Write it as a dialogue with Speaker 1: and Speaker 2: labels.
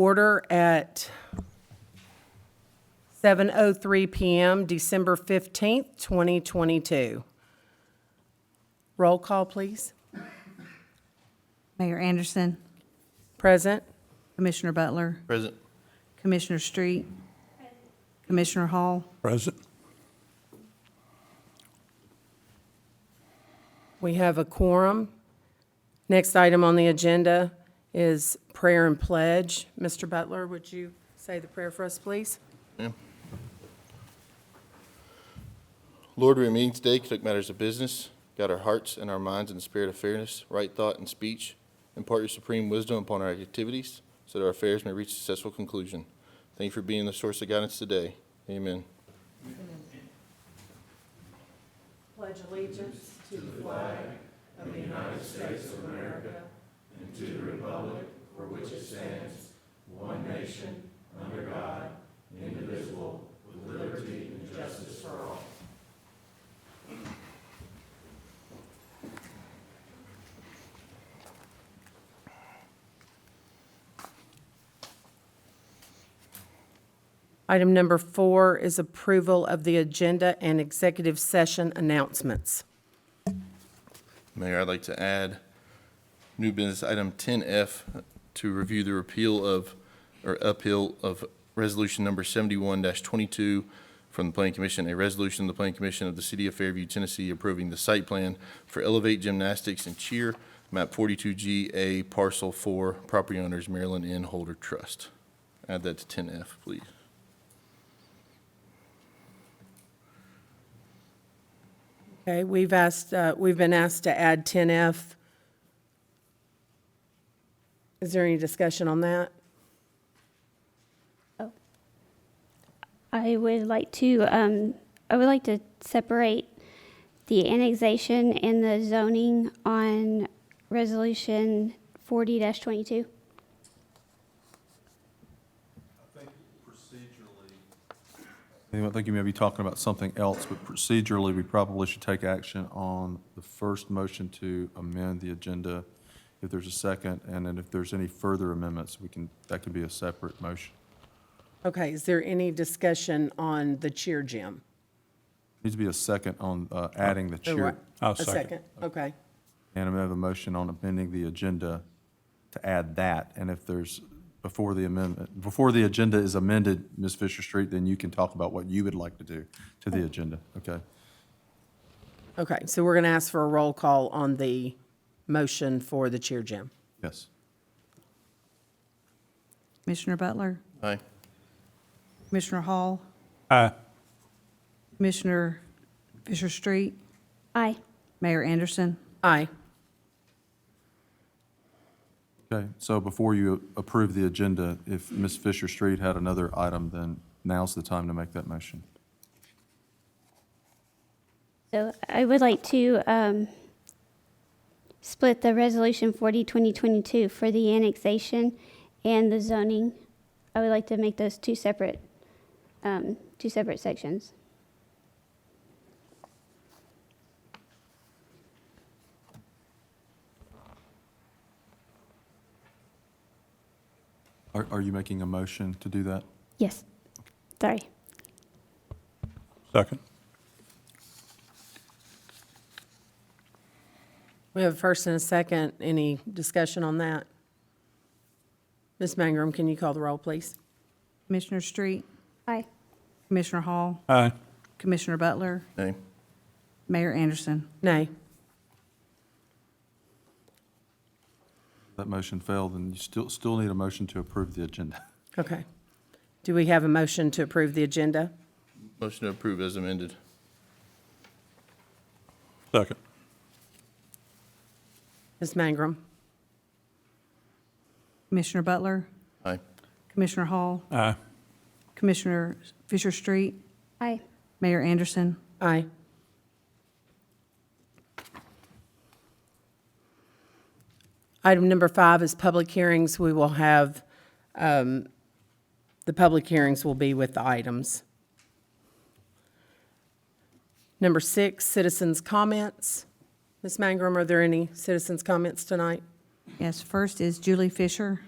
Speaker 1: order at 7:03 PM, December 15th, 2022. Roll call, please.
Speaker 2: Mayor Anderson,
Speaker 1: Present?
Speaker 2: Commissioner Butler,
Speaker 3: Present.
Speaker 2: Commissioner Street, Commissioner Hall,
Speaker 4: Present.
Speaker 1: We have a quorum. Next item on the agenda is prayer and pledge. Mr. Butler, would you say the prayer for us, please?
Speaker 3: Lord, we meet today, conduct matters of business, guide our hearts and our minds in the spirit of fairness, right thought, and speech. Impart your supreme wisdom upon our activities, so that our affairs may reach a successful conclusion. Thank you for being the source of guidance today. Amen.
Speaker 1: Pledge allegiance to the flag Item number four is approval of the agenda and executive session announcements.
Speaker 3: Mayor, I'd like to add new business item 10F to review the repeal of, or uphill of Resolution Number 71-22 from the Planning Commission, a resolution of the Planning Commission of the City of Fairview, Tennessee, approving the site plan for Elevate Gymnastics and Cheer, map 42GA, parcel 4, property owners Maryland N. Holder Trust. Add that to 10F, please.
Speaker 1: Okay, we've asked, uh, we've been asked to add 10F. Is there any discussion on that?
Speaker 5: I would like to, um, I would like to separate the annexation and the zoning on resolution forty twenty-two.
Speaker 6: I think you may be talking about something else, but procedurally, we probably should take action on the first motion to amend the agenda, if there's a second, and then if there's any further amendments, we can, that can be a separate motion.
Speaker 1: Okay, is there any discussion on the cheer gym?
Speaker 6: Needs to be a second on uh, adding the
Speaker 1: Or
Speaker 6: cheer.
Speaker 4: I'll
Speaker 1: A
Speaker 4: second.
Speaker 1: second, okay.
Speaker 6: And I have a motion on amending the agenda to add that, and if there's, before the amendment, before the agenda is amended, Ms. Fisher Street, then you can talk about what you would like to do to the agenda, okay?
Speaker 1: Okay, so we're going to ask for a roll call on the motion for the cheer gym.
Speaker 6: Yes.
Speaker 2: Commissioner Butler,
Speaker 3: Aye.
Speaker 2: Commissioner Hall,
Speaker 4: Aye.
Speaker 2: Commissioner Fisher Street,
Speaker 5: Aye.
Speaker 2: Mayor Anderson,
Speaker 1: Aye.
Speaker 6: Okay, so before you approve the agenda, if Ms. Fisher Street had another item, then now's the time to make that motion.
Speaker 5: So I would like to, um, split the resolution forty twenty twenty-two for the annexation and the zoning. I would like to make those two separate, um, two separate sections.
Speaker 6: Are, are you making a motion to do that?
Speaker 5: Yes. Sorry.
Speaker 4: Second.
Speaker 1: We have a first and a second. Any discussion on that? Ms. Mangrum, can you call the roll, please?
Speaker 2: Commissioner Street,
Speaker 5: Aye.
Speaker 2: Commissioner Hall,
Speaker 4: Aye.
Speaker 2: Commissioner Butler,
Speaker 3: Aye.
Speaker 2: Mayor Anderson.
Speaker 1: Nay.
Speaker 6: That motion failed, and you still, still need a motion to approve the agenda.
Speaker 1: Okay. Do we have a motion to approve the agenda?
Speaker 3: Motion to approve as amended.
Speaker 4: Second.
Speaker 1: Ms. Mangrum?
Speaker 2: Commissioner Butler,
Speaker 3: Aye.
Speaker 2: Commissioner Hall,
Speaker 4: Aye.
Speaker 2: Commissioner Fisher Street,
Speaker 5: Aye.
Speaker 2: Mayor Anderson.
Speaker 1: Aye. Item number five is public hearings. We will have, um, the public hearings will be with the items. Number six, citizens' comments. Ms. Mangrum, are there any citizens' comments tonight?
Speaker 2: Yes, first is Julie Fisher.